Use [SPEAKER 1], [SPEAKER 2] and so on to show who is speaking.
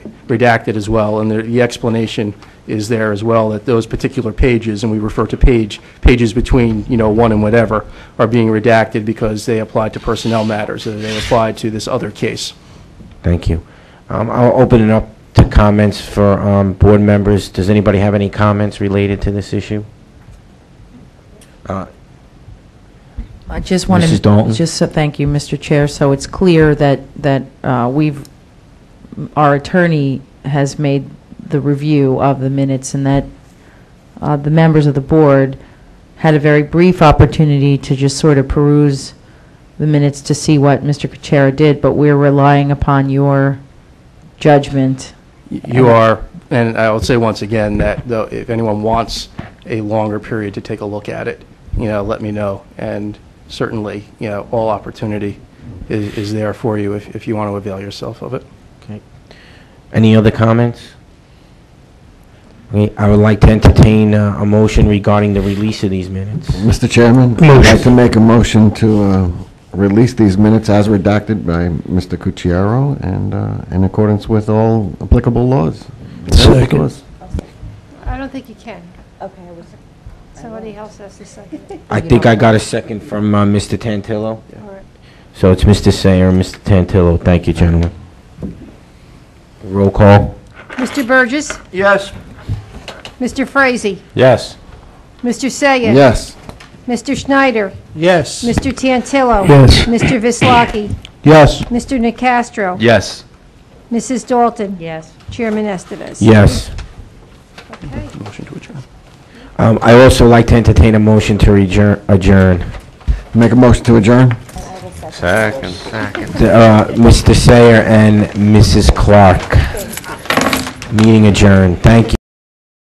[SPEAKER 1] redacted as well, and the- the explanation is there as well, that those particular pages, and we refer to page, pages between, you know, one and whatever, are being redacted because they apply to personnel matters, or they apply to this other case.
[SPEAKER 2] Thank you. Um, I'll open it up to comments for um, board members. Does anybody have any comments related to this issue? Uh,
[SPEAKER 3] I just want to...
[SPEAKER 2] Mrs. Dalton?
[SPEAKER 3] Just, so- thank you, Mr. Chair. So it's clear that, that uh, we've, our attorney has made the review of the minutes and that uh, the members of the board had a very brief opportunity to just sort of peruse the minutes to see what Mr. Kuchera did, but we're relying upon your judgment.
[SPEAKER 1] You are, and I will say once again that though, if anyone wants a longer period to take a look at it, you know, let me know. And certainly, you know, all opportunity is, is there for you if, if you want to avail yourself of it.
[SPEAKER 2] Okay. Any other comments? Okay, I would like to entertain uh, a motion regarding the release of these minutes.
[SPEAKER 4] Mr. Chairman? I'd like to make a motion to uh, release these minutes as redacted by Mr. Cucchiaro and uh, in accordance with all applicable laws. Second.
[SPEAKER 5] I don't think you can. Okay. Somebody else has to second it.
[SPEAKER 2] I think I got a second from uh, Mr. Tantillo.
[SPEAKER 5] All right.
[SPEAKER 2] So it's Mr. Sayer and Mr. Tantillo. Thank you, gentlemen. Roll call.
[SPEAKER 5] Mr. Burgess?
[SPEAKER 1] Yes.
[SPEAKER 5] Mr. Frazee?
[SPEAKER 2] Yes.
[SPEAKER 5] Mr. Sayah?
[SPEAKER 4] Yes.
[SPEAKER 5] Mr. Schneider?
[SPEAKER 1] Yes.
[SPEAKER 5] Mr. Tantillo?
[SPEAKER 4] Yes.
[SPEAKER 5] Mr. Vislaki?
[SPEAKER 4] Yes.
[SPEAKER 5] Mr. Nacastro?
[SPEAKER 6] Yes.
[SPEAKER 5] Mrs. Dalton?
[SPEAKER 3] Yes.
[SPEAKER 5] Chairman Estevez?
[SPEAKER 2] Yes.
[SPEAKER 5] Okay.
[SPEAKER 1] Motion to adjourn.
[SPEAKER 2] Um, I also like to entertain a motion to adjourn- adjourn.
[SPEAKER 4] Make a motion to adjourn?
[SPEAKER 6] Second.
[SPEAKER 2] Uh, Mr. Sayer and Mrs. Clark. Meeting adjourned. Thank you.